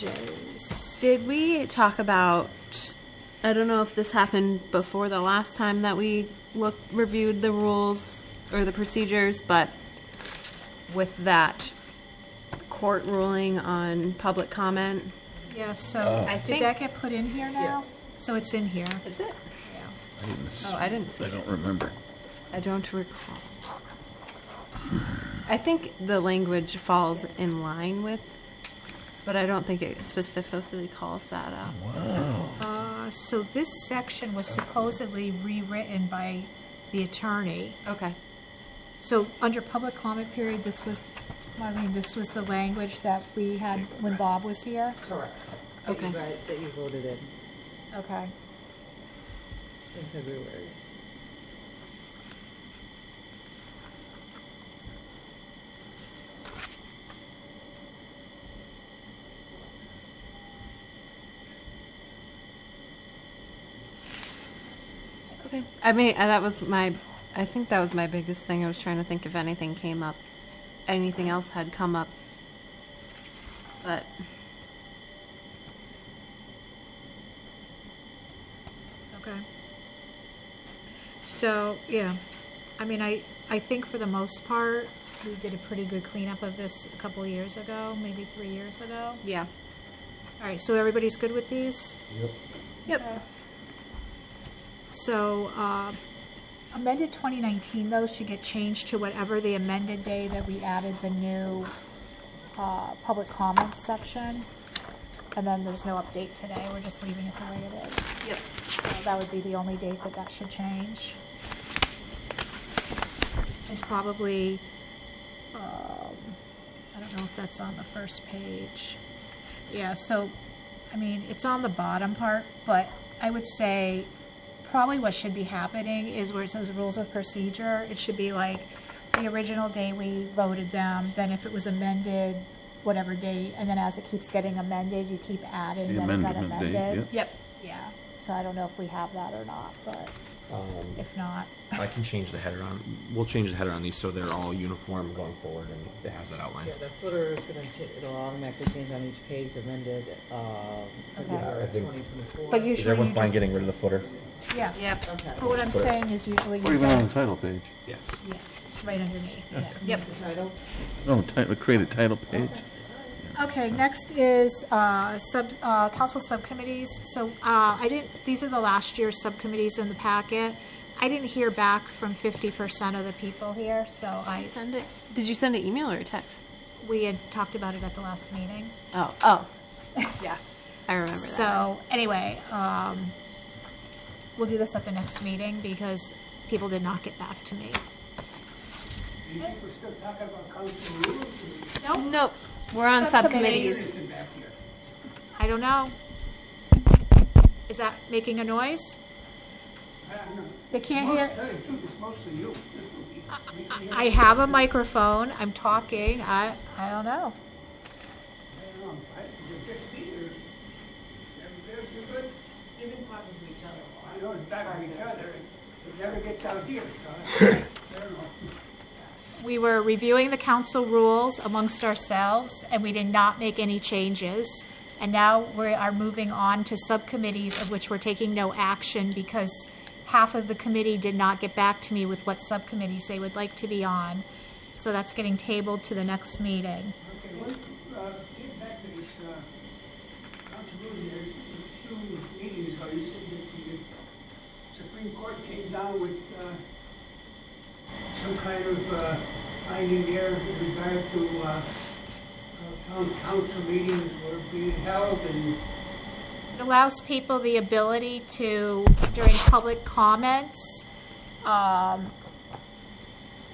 changes. Did we talk about? I don't know if this happened before the last time that we looked reviewed the rules or the procedures, but with that court ruling on public comment, Yeah, so, I did think- that get put in here now? So it's in here. is it? Yeah. I didn't s- Oh, I didn't see. I don't remember. I don't recall. I think the language falls in line with, but I don't think it specifically calls that out. Uh, So this section was supposedly rewritten by the attorney. Okay. So under public comment period, this was, Marlene, this was the language that we had when Bob was here? Correct. That you Okay. vote- That you voted in, Okay. in February. Okay. I mean, uh, that was my, I think that was my biggest thing. I was trying to think if anything came up, anything else had come up. But Okay. So, yeah, I mean, I, I think for the most part, we did a pretty good cleanup of this a couple years ago, maybe three years ago. yeah. All right, so everybody's good with these? Yep. So uh, amended 2019, though, should get changed to whatever the amended day that we added the new uh, public comments section. And then there's no update today, we're just leaving it the way it is. Yep. So that would be the only date that that should change. And probably, um, I don't know if that's on the first page. Yeah, so, I mean, it's on the bottom part, but I would say probably what should be happening is where it says rules of procedure, it should be like the original day we voted them, then if it was amended, whatever date, and then as it keeps getting amended, you keep adding The that it got amendment date, amended. yeah. Yep. Yeah, so I don't know if we have that or not, but Um, if not, I can change the header on, we'll change the header on these so they're all uniform going forward and it has that outline. Yeah, the footer is gonna, cha- it'll automatically change on each page amended, um, Yeah, I February think- twenty twenty-four. but Is usually everyone you fine just, getting rid of the footer? yeah. Yep. Okay. But what I'm Just put it- saying is usually Or you even on the go, title page. Yes. yeah, right underneath, yeah. Yep. The title, No, Oh, ti- create a title page. Okay, next is uh, sub, uh, council subcommittees. So uh, I didn't, these are the last year's subcommittees in the packet. I didn't hear back from 50% of the people here, so I, Send it. Did you send an email or a text? we had talked about it at the last meeting. Oh. Oh. yeah. I remember that. So, anyway, um, we'll do this at the next meeting because people did not get back to me. Do you think we're still talking about council rules? Nope. We're on Subcommittees. subcommittees. Listen back here. I don't know. Is that making a noise? I don't know. They can't Most- hear. Tell you the truth, it's mostly you. We can't- I have a microphone. I'm talking. I, I don't know. I don't know. I- you're just here. Everybody's doing good. They've been talking to each other. a lot. I know it's back on each other. It never gets out here, so I I don't know. We were reviewing the council rules amongst ourselves, and we did not make any changes. And now we are moving on to subcommittees of which we're taking no action because half of the committee did not get back to me with what subcommittees they would like to be on. So that's getting tabled to the next meeting. Okay, what, uh, get back to this, uh, council rules here. A few meetings ago, you said that the uh, Supreme Court came down with, uh, some kind of, uh, finding there with regard to, uh, uh, town council meetings were being held and It allows people the ability to, during public comments, um,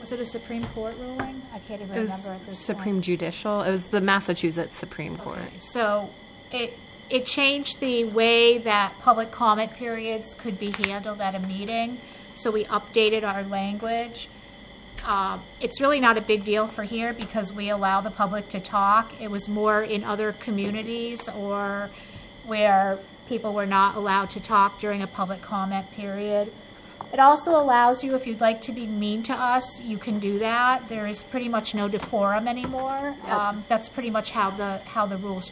was it a Supreme Court ruling? I can't even remember It was at this point. Supreme Judicial. It was the Massachusetts Supreme Court. Okay, So it, it changed the way that public comment periods could be handled at a meeting, so we updated our language. Uh, It's really not a big deal for here because we allow the public to talk. It was more in other communities or where people were not allowed to talk during a public comment period. It also allows you, if you'd like to be mean to us, you can do that. There is pretty much no decorum anymore. Um, That's pretty much how the, how the rules